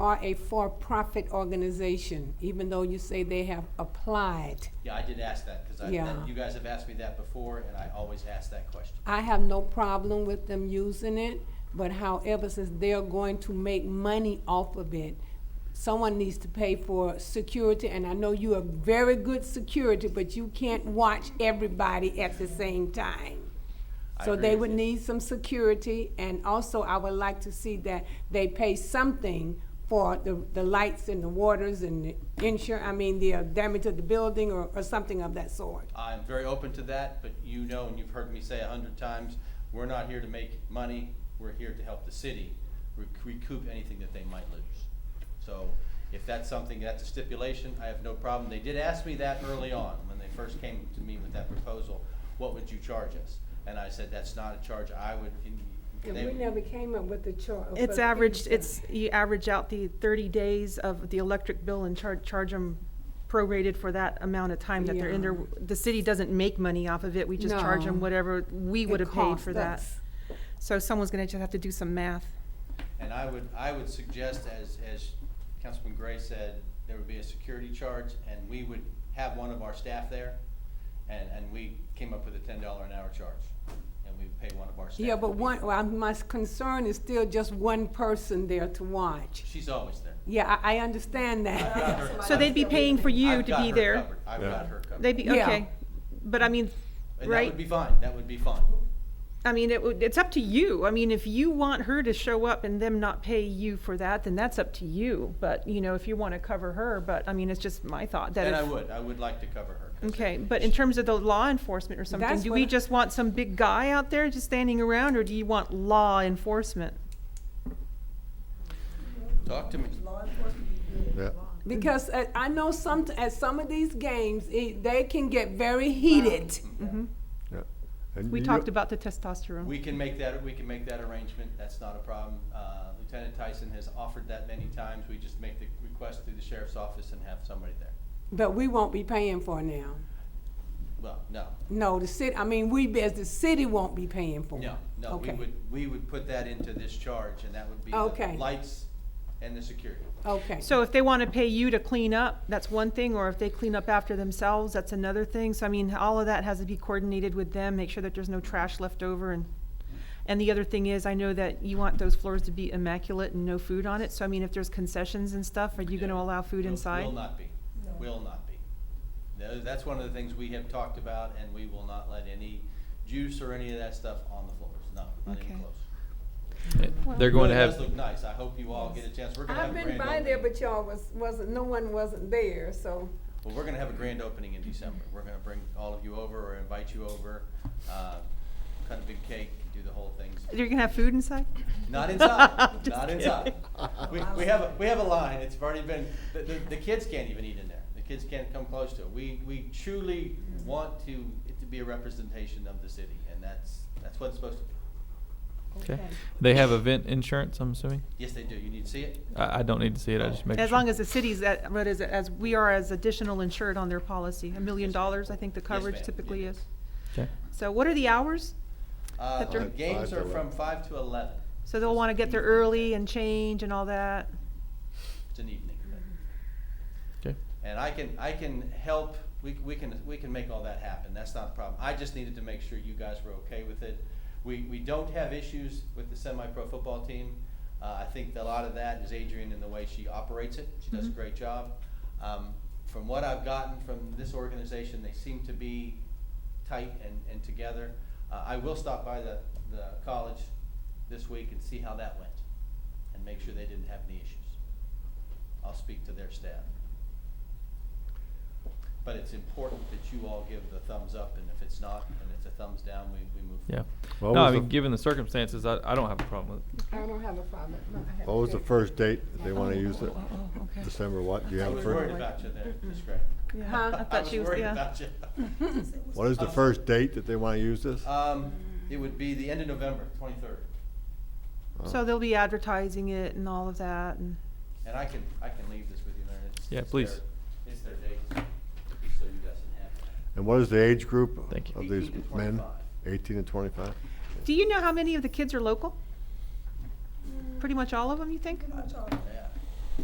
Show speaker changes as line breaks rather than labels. are a for-profit organization, even though you say they have applied.
Yeah, I did ask that, because I,
Yeah.
that- you guys have asked me that before, and I always ask that question.
I have no problem with them using it, but however, since they're going to make money off of it, someone needs to pay for security, and I know you are very good security, but you can't watch everybody at the same time.
I
So
agree
they
with
would
you.
need some security, and also I would like to see that they pay something for the, the lights and the waters and the insure, I mean, the uh, damage of the building or, or something of that sort.
I'm very open to that, but you know, and you've heard me say a hundred times, we're not here to make money, we're here to help the city rec- recoup anything that they might lose. So if that's something, that's a stipulation, I have no problem. They did ask me that early on, when they first came to me with that proposal, what would you charge us? And I said, that's not a charge I would, and
And
they,
we never came up with uh, a chart.
It's averaged, it's, you average out the thirty days of the electric bill and charge, charge them prorated for that amount of time that they're in there.
Yeah.
The city doesn't make money off of it, we just charge
No.
them whatever we would have paid for that.
costs us.
So someone's gonna just have to do some math.
And I would, I would suggest, as, as Councilman Gray said, there would be a security charge, and we would have one of our staff there, and, and we came up with a ten dollar an hour charge, and we would pay one of our staff.
Yeah,
to
but
be
one,
there.
well, I'm- my concern is still just one person there to watch.
She's always there.
Yeah, I, I understand
I've got
that.
her-
So they'd be paying for you
I've
to
got
be
her
there.
covered. I've got her covered.
They'd be,
Yeah.
okay, but I mean,
And that
right?
would be fine, that would be fine.
I mean, it would, it's up to you. I mean, if you want her to show up and them not pay you for that, then that's up to you. But, you know, if you wanna cover her, but, I mean, it's just my thought that
And I
if-
would, I would like to cover her. 'cause
Okay, but in terms of the law enforcement or something,
That's
do
what I-
we just want some big guy out there just standing around, or do you want law enforcement?
Talk to me.
Yeah.
Because I, I know some, at some of these games, it, they can get very heated.
Yeah. And
Mm-hmm. We
you-
talked about the testosterone.
We can make that, we can make that arrangement, that's not a problem. Uh, Lieutenant Tyson has offered that many times, we just make the request through the sheriff's office and have somebody there.
But we won't be paying for it now.
Well, no,
No, the city, I mean, we, as the city won't be paying for it.
no, no, we
Okay.
would, we would put that into this charge, and that would be the
Okay.
lights and the security.
Okay.
So if they want to pay you to clean up, that's one thing, or if they clean up after themselves, that's another thing. So I mean, all of that has to be coordinated with them, make sure that there's no trash left over and, and the other thing is, I know that you want those floors to be immaculate and no food on it, so I mean, if there's concessions and stuff, are you going to
Yeah.
allow food
Will-
inside?
Will not be, will not be. No, That's one of the things we have talked about, and we will not let any juice or any of that stuff on the floors, no, not even
Okay.
close.
They're going to
It does
have,
look nice, I hope you all get a chance, we're gonna have
I've
a
been
grand
by there,
opening.
but y'all was, wasn't, no one wasn't there, so.
Well, we're gonna have a grand opening in December, we're gonna bring all of you over or invite you over, uh, cut a big cake, do the whole thing.
You're going to have food inside?
Not inside.
Just
not
kidding.
inside. We, we have a we have a line. It's already been the, the, the kids can't even eat in there. The kids can't come close to it. We we truly want to it to be a representation of the city, and that's that's what it's supposed to be.
okay. They have event insurance, I'm assuming?
Yes, they do. You need to see it.
I, I don't need to see it, I just make sure.
As long as the city's, at- what is it, as we are as additional insured on their policy, a million
Yes, ma'am.
dollars, I think the
Yes,
coverage
ma'am.
typically
Yeah.
is.
Okay.
So what are the hours?
Uh,
That they're-
the games
Five to
are from
11.
five to eleven.
So they'll want to get there early and change and all that.
It's an evening event.
Okay.
And I can, I can help, we, we can, we can make all that happen, that's not a problem. I just needed to make sure you guys were okay with it. We, we don't have issues with the semi-pro football team. Uh, I think that a lot of that is Adrian and the way she operates it, she does a
Mhm.
great job. Um, from what I've gotten from this organization, they seem to be tight and, and together. Uh, I will stop by the, the college this week and see how that went, and make sure they didn't have any issues. I'll speak to their staff. But it's important that you all give the thumbs up, and if it's not, and it's a thumbs down, we, we move.
Yeah.
What
No, I
was
mean,
the-
given the circumstances, I, I don't have a problem with it.
I don't have a problem.
What was the first date that they want to use
Oh,
it?
okay.
December what? Do you
I
have a
was worried
first?
about you there, Ms. Gray.
Huh? I thought she was- yeah.
worried about
What is the first date that they want to use this?
you. Um, it would be the end of November, twenty-third,
Uh,
So they'll be advertising it and all of that and,
and I can, I can leave this with you there. It's-
Yeah,
it's
please.
their- It's their date, so you guys can have it.
And what is the age group
Thank you.
of these
18 to
men?
25.
Eighteen to twenty-five?
do you know how many of the kids are local? Pretty much all of them, you think?